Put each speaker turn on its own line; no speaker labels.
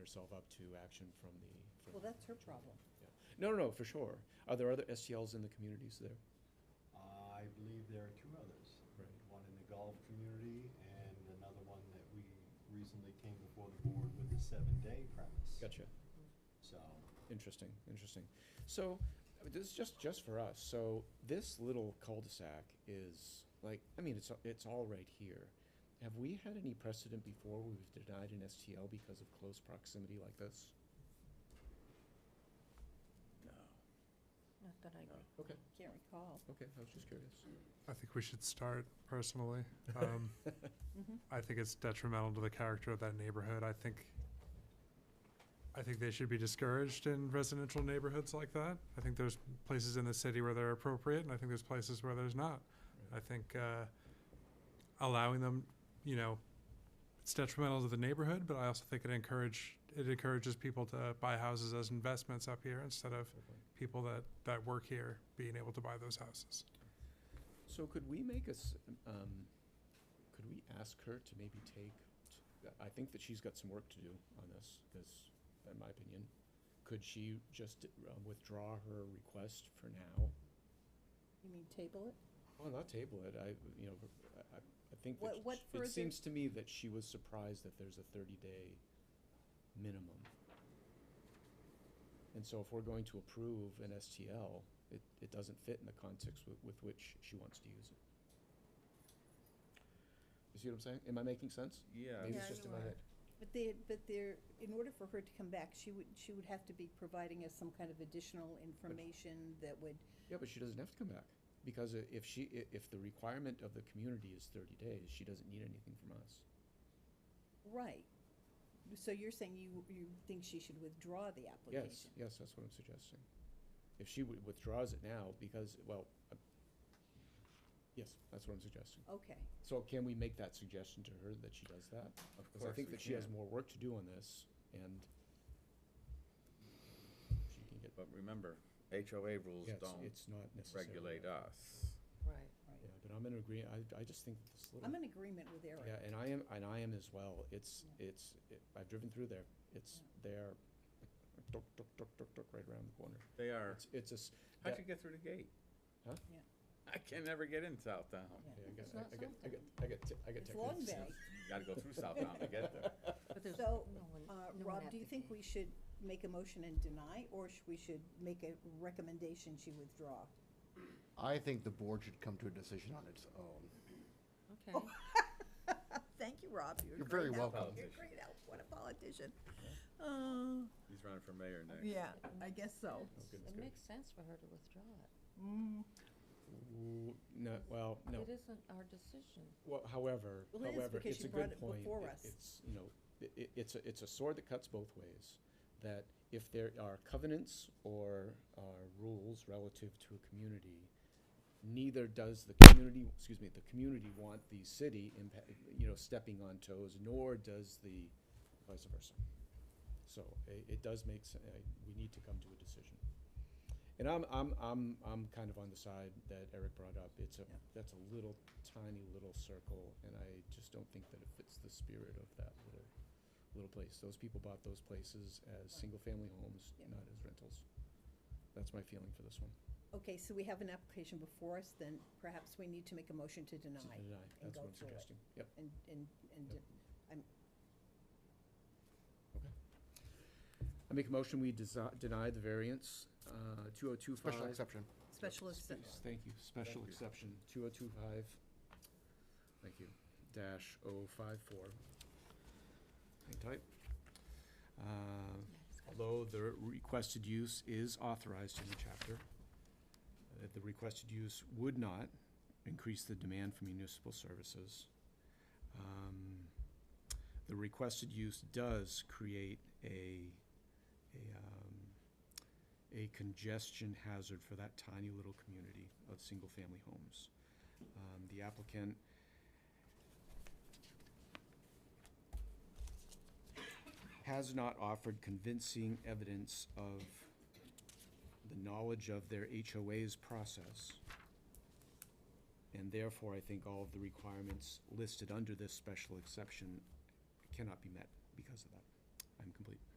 herself up to action from the. from-
Well, that's her problem.
yeah. No, no, no, for sure. Are there other STLs in the communities there?
I believe there are two others.
Right.
One in the Gulf community and another one that we recently came before the board with the seven-day premise.
Gotcha.
So,
Interesting, interesting. So, uh, this is just, just for us, so this little cul-de-sac is, like, I mean, it's, it's all right here. Have we had any precedent before where we've denied an STL because of close proximity like this? No.
Not that I
Okay,
can't recall.
okay, I was just curious.
I think we should start personally. Um,
Mhm.
I think it's detrimental to the character of that neighborhood. I think, I think they should be discouraged in residential neighborhoods like that. I think there's places in the city where they're appropriate, and I think there's places where there's not. I think uh, allowing them, you know, it's detrimental to the neighborhood, but I also think it encourage it encourages people to buy houses as investments up here instead of people that that work here being able to buy those houses.
So could we make us, um, could we ask her to maybe take, t- I think that she's got some work to do on this, because, in my opinion, could she just uh, withdraw her request for now?
You mean table it?
Well, not table it, I, you know, I, I- I think
What- what
that, sh-
further-
it seems to me that she was surprised that there's a thirty-day minimum. And so if we're going to approve an STL, it, it doesn't fit in the context with, with which she wants to use it. You see what I'm saying? Am I making sense?
Yeah.
Maybe it's
Yeah,
just in
you
my
are.
head.
But they, but they're, in order for her to come back, she would, she would have to be providing us some kind of additional information that would,
Yeah, but she doesn't have to come back, because i- if she, i- if the requirement of the community is thirty days, she doesn't need anything from us.
right. So you're saying you, you think she should withdraw the
Yes,
application?
yes, that's what I'm suggesting. If she wi- withdraws it now, because, well, uh, yes, that's what I'm suggesting.
Okay,
So can we make that suggestion to her that she does that?
Of
Because I think
we
that she has
can.
more work to do on this, and she can get,
But remember, HOA rules
yes,
don't
it's not necessary.
regulate us.
Right.
right.
Yeah, but I'm in agreement, I, I just think that this little.
I'm in agreement with
Yeah,
Eric.
and I am, and I am as well. It's,
Yeah.
it's, it- I've driven through there. It's
Yeah.
there, tuk, tuk, tuk, tuk, tuk, right around the corner.
They are,
It's, it's a, s-
how'd
that-
you get through the gate?
Huh?
Yeah.
I can never get in Southdown.
Yeah.
Yeah, I
It's
got, I
not
got, I got, I got, t- I got
It's Long
techniques.
Bay.
You gotta go through Southdown to get there.
But there's
So,
no one-
uh,
no one
Rob,
at
do you
the
think
gate.
we should make a motion and deny, or sh we should make a recommendation she withdraw?
I think the board should come to a decision on its own.
Okay.
Thank you, Rob. You're a
You're very
great help.
welcome.
You're a great help. What a politician. Uh,
He's running for mayor next.
yeah, I guess so. Mm.
goodness gracious.
It makes sense for her to withdraw it.
Ooh, No, well, no.
It isn't our decision.
Well, however,
Well, it is
however,
because
it's
you
a
brought
good
it
point.
before
It-
us.
It's, you know, i- i- it's a, it's a sword that cuts both ways. That if there are covenants or, uh rules relative to a community, neither does the community, excuse me, the community want the city impa- you know, stepping on toes, nor does the vice versa. So it, it does make, se- uh, we need to come to a decision. And I'm, I'm, I'm, I'm kind of on the side that Eric brought up. It's a,
Yeah.
that's a little tiny little circle, and I just don't think that it fits the spirit of that little, little place. Those people bought those places as single-family homes,
Yeah.
not as rentals. That's my feeling for this one.
Okay, so we have an application before us, then perhaps we need to make a motion to
To
deny.
deny,
and
that's
go
what I'm
through it.
suggesting. Yep,
And, and, and,
Yep.
I'm,
okay. I make a motion, we desi- deny the variance, uh, two oh two five.
Special exception.
special
Spe-
exception.
Thank you, special
Thank you.
exception, two oh two five, thank you, dash oh five four. Hang tight. Uh, Although the requested use is authorized in the chapter, that the requested use would not increase the demand for municipal services. Um, The requested use does create a, a, um, a congestion hazard for that tiny little community of single-family homes. Um, The applicant has not offered convincing evidence of the knowledge of their HOA's process. And therefore, I think all of the requirements listed under this special exception cannot be met because of that. I'm complete.